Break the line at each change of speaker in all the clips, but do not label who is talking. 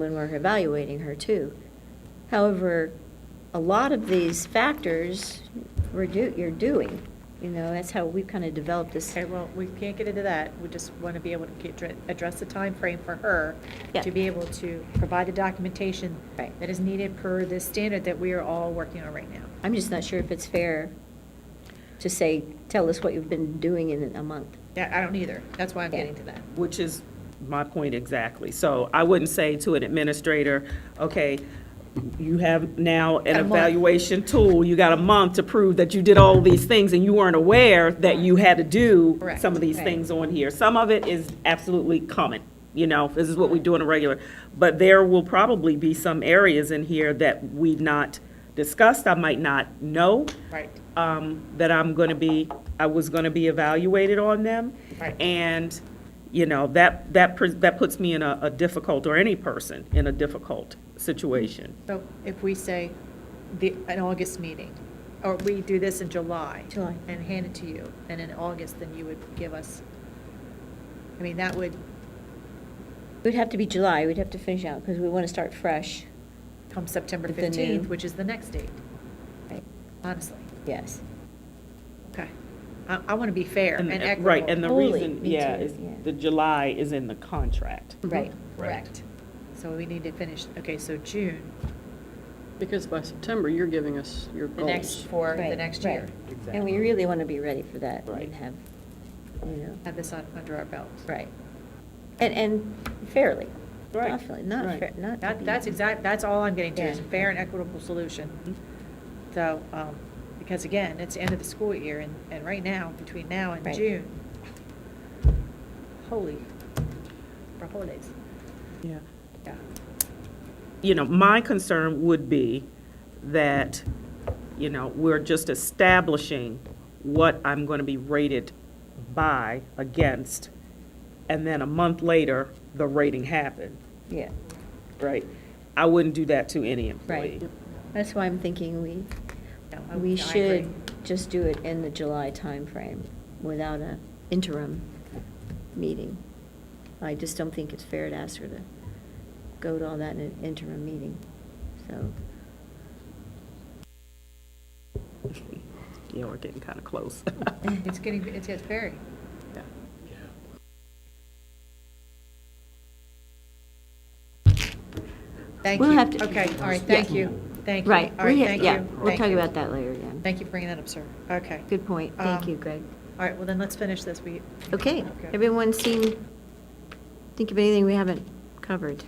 when we're evaluating her too. However, a lot of these factors we're do, you're doing, you know, that's how we kind of developed this.
Okay, well, we can't get into that. We just want to be able to get, dr- address the time frame for her
Yeah.
to be able to provide the documentation
Right.
that is needed per this standard that we are all working on right now.
I'm just not sure if it's fair to say, tell us what you've been doing in a month.
Yeah, I don't either. That's why I'm
Yeah.
getting to that.
Which is my point exactly. So I wouldn't say to an administrator, okay, you have now an
Got a month.
evaluation tool, you got a month to prove that you did all these things and you weren't aware that you had to do
Correct.
some of these
Right.
things on here. Some of it is absolutely common, you know, this is what we do on a regular. But there will probably be some areas in here that we've not discussed, I might not know
Right.
um, that I'm going to be, I was going to be evaluated on them.
Right.
And, you know, that, that, pres- that puts me in a a difficult, or any person in a difficult situation.
So if we say the, an August meeting, or we do this in July.
July.
And hand it to you, and in August, then you would give us, I mean, that would
It would have to be July, we'd have to finish out, because we want to start fresh.
come September
With the new-
15th, which is the next date,
Right.
honestly.
Yes.
Okay. I, I want to be fair and
uh,
equitable.
Right, and the
Totally,
reason,
me
yeah,
too,
is
yeah.
the July is in the contract.
Mm-hmm.
Right.
Correct. So we need to finish, okay, so June,
Because by September, you're giving us your
the
goals.
next, for the
Right,
next year.
right. And we really want to be ready for that
Right.
and have, you know,
Have this on, under our belt.
right. And, and fairly.
Right,
Not fairly, not
right.
fair, not. to
That,
be-
that's exact, that's all I'm getting to, is a
Yeah.
fair and equitable solution. So, um, because again, it's the end of the school year, and, and right now, between now and
Right.
June, holy, for holidays,
Yeah.
yeah.
you know, my concern would be that, you know, we're just establishing what I'm going to be rated by, against, and then a month later, the rating happened,
Yeah,
right? I wouldn't do that to any
right.
employee.
That's why I'm thinking we,
No, I- I
we
agree.
should just do it in the July timeframe without a interim meeting. I just don't think it's fair to ask her to go to all that in an interim meeting, so.
Yeah, we're getting kind of close.
It's getting, it's, it's very,
Yeah.
thank you.
We'll have to-
Okay, all right,
Yeah.
thank you, thank you.
Right,
All right,
we-
thank
yeah,
you,
we'll
thank
talk
you.
about that later, yeah.
Thank you for bringing that up, sir. Okay.
Good point, thank
Um,
you, Greg.
All right, well then, let's finish this. We,
Okay,
Okay.
everyone seen, think of anything we haven't covered?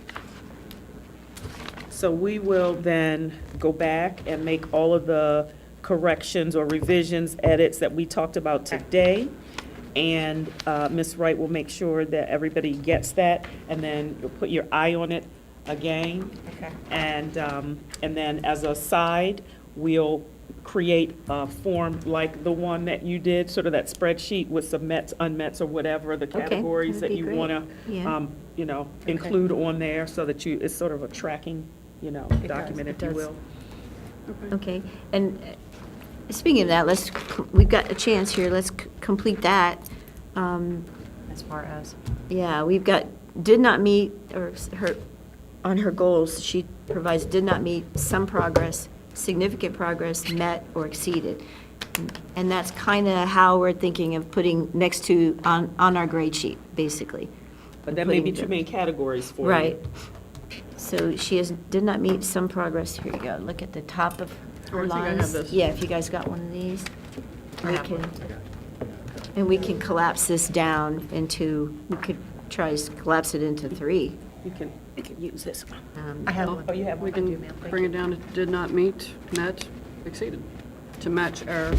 So we will then go back and make all of the corrections or revisions, edits that we talked about today. And uh, Ms. Wright will make sure that everybody gets that, and then you'll put your eye on it again.
okay,
And, um, and then as a side, we'll create a form like the one that you did, sort of that spreadsheet with some mets, unmets, or whatever, the
Okay,
categories
that'd
that
be
you
great.
want
Yeah.
to, you know, include on there, so that you, it's sort of a tracking, you know,
does,
document,
it
if you
does.
will.
Okay, and uh, speaking of that, let's, c- we've got a chance here, let's c- complete that. Um,
as far as.
Yeah, we've got, did not meet, or s- her, on her goals, she provides did not meet some progress, significant progress, met or exceeded. And that's kind of how we're thinking of putting next to, on, on our grade sheet, basically.
But that may be
Including
too
the-
many categories for you.
Right. So she has, did not meet some progress, here you go, look at the top of
Oh, I
her
think I have
lines.
this.
Yeah, if you guys got one of these,
I
we
have one.
can, and we can collapse this down into, we could try to collapse it into three.
You can, you can use this one.
Um,
I have
Oh,
one.
oh, you have
We
I do,
can
ma'am. Thank
bring
you.
it down to did not meet, met, exceeded, to match our,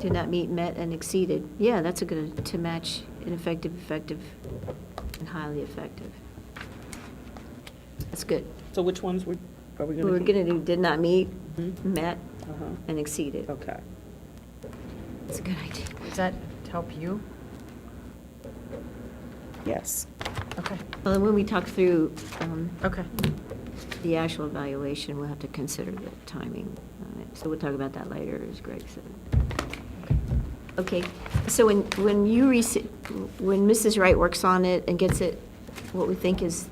Did not meet, met, and exceeded. Yeah, that's a good, to match ineffective, effective, and highly effective. That's good.
So which ones were, are we going to?
We're going to do Mm-hmm. did not meet,
Mhm.
met,
Uh-huh,
and exceeded.
okay.
That's a good idea.
Does that help you?
Yes.
Okay,
Well, and when we talk through um,
okay.
the actual evaluation, we'll have to consider the timing on it. So we'll talk about that later, as Greg said. Okay, so when, when you, rece- when Mrs. Wright works on it and gets it, what we think is